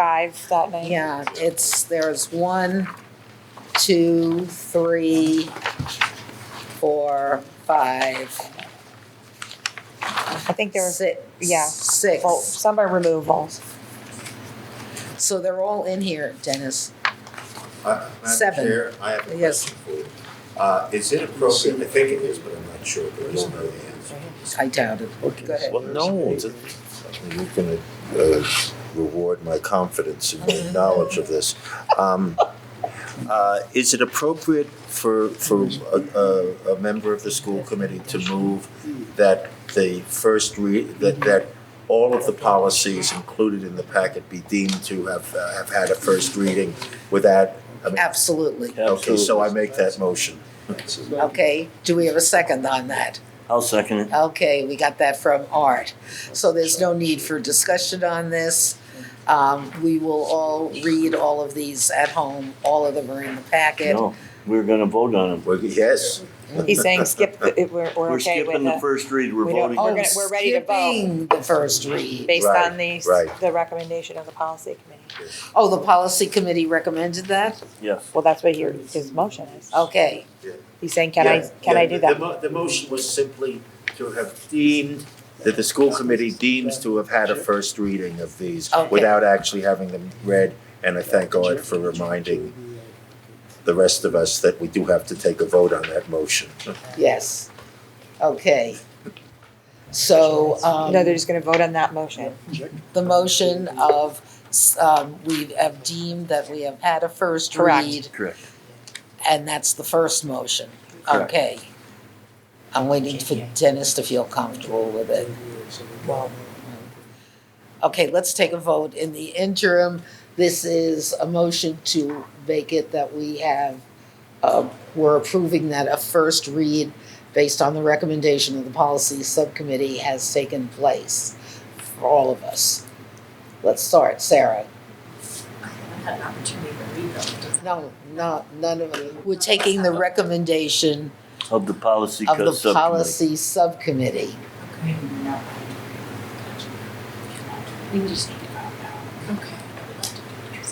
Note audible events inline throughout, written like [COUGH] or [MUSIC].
five that night. Yeah, it's, there's one, two, three, four, five, I think there was six. yeah, vol- Six. some are removals. So they're all in here, Dennis. Uh, Madam Seven. Chair, I have a Yes. question for you. Uh, is it appropriate, I think it is, but I'm not sure, there is no answer. I doubt it. Go ahead. Well, no, it's- You're gonna, uh, reward my confidence in [LAUGHS] your knowledge of this. Um, uh, is it appropriate for, for a, a, a member of the school committee to move that the first re, that, that all of the policies included in the packet be deemed to have, uh, have had a first reading without, I mean, Absolutely. Okay, so I absolutely. make that motion. Okay, do we have a second on that? I'll second it. Okay, we got that from Art. So there's no need for discussion on this. Um, we will all read all of these at home. All of them are in the packet. No, we're gonna vote on it. Well, yes. He's saying skip, the- it- we're, we're We're okay with skipping the the, first read, we're we don't- voting. We're Oh, on gonna- it. we're ready to vote. Skipping the first read. based Right, on the, s- right. the recommendation of the policy committee. Oh, the policy committee recommended that? Yes. Well, that's what your, his motion is. Okay, He's saying, can I, Yeah, can yeah, I do the- The, that? mo- the motion was simply to have deemed, that the school committee deems to have had a first reading of these Okay. without actually having them read. And I thank God for reminding the rest of us that we do have to take a vote on that motion. yes, okay. So, um, No, they're just gonna vote on that motion. the motion of, s- um, we have deemed that we have had a first Correct. read, Correct. and that's the first motion, Correct. okay. I'm waiting for Dennis to feel comfortable with it. Okay, let's take a vote. In the interim, this is a motion to make it that we have, uh, we're approving that a first read based on the recommendation of the policy subcommittee has taken place for all of us. Let's start, Sarah. had an opportunity to read them. No, no, none of it. We're taking the recommendation Of the policy of co- the subcommittee. policy subcommittee. We just need to find out.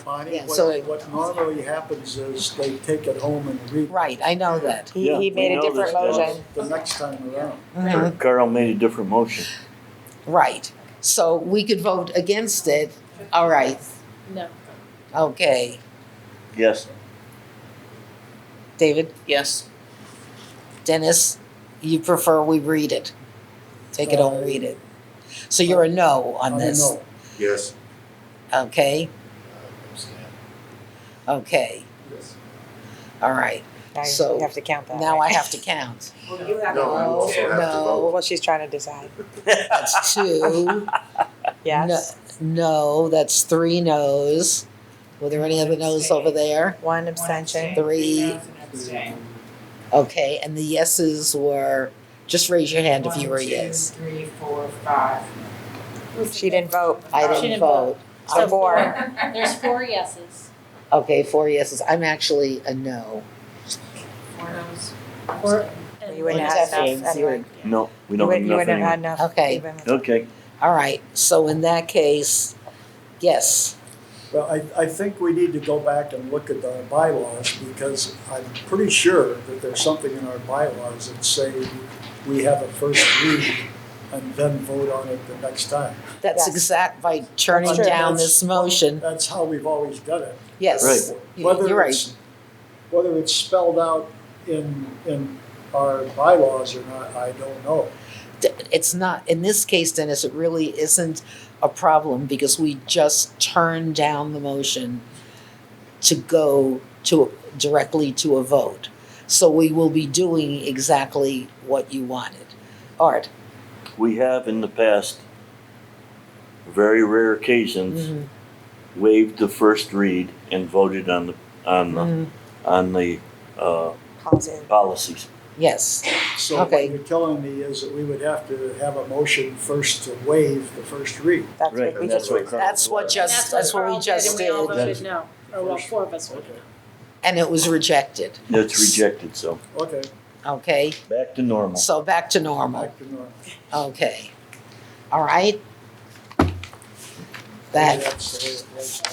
Bonnie, Yeah, so- what, what normally happens is they take it home and read it Right, I know that. He, Yeah, he we made a know different this, yeah. motion. the next time around. Mhm. Carl made a different motion. Right, so we could vote against it, all right, No. okay. Yes. David, Yes. Dennis, you prefer we read it? Take it home, read it. So you're a no on I this? know. Yes. Okay, okay, all right. Now you So, have to count that. Now I right? have to count. Well, you No, I also have to No. [LAUGHS] vote. Well, she's trying to decide. That's [LAUGHS] two. Yes, No, that's three no's. Were there any other no's over there? one abstention. Three, okay, and the yeses were, just raise your hand if you were a yes. Three, four, five. She didn't vote. I She didn't didn't vote. So four. There's four yeses. Okay, four yeses. I'm actually a no. Four no's. Four- You wouldn't One have abstention, enough zero. anyway. No, we You don't wouldn't, have you enough wouldn't have had anyway. enough. Okay. even with- Okay, All right, so in that case, yes, Well, I, I think we need to go back and look at our bylaws because I'm pretty sure that there's something in our bylaws that say we have a first read and then vote on it the next time. that's Yes. exact by turning That's true. down That's- this motion. That's how we've always done it. Yes, You- Whether you're right. it's- Whether it's spelled out in, in our bylaws or not, I don't know. D- it's not, in this case, Dennis, it really isn't a problem because we just turned down the motion to go to, directly to a vote. So we will be doing exactly what you wanted. Art? we have in the past, very rare occasions, Mhm. Mm-hmm. waived the first read and voted on the, on the, Mhm. Mm-hmm. on the, uh, Policy. policies. Yes, So Okay. what you're telling me is that we would have to have a motion first to waive the first read. That's Right, what we just, and that's what Carl. that's what was. just, that's what we just And we all did, voted no, or well, four of us voted no. and it was rejected, That's rejected, so Okay, okay? back to normal. So back to uh, normal. back to normal. Okay. All right. that That's the way it was.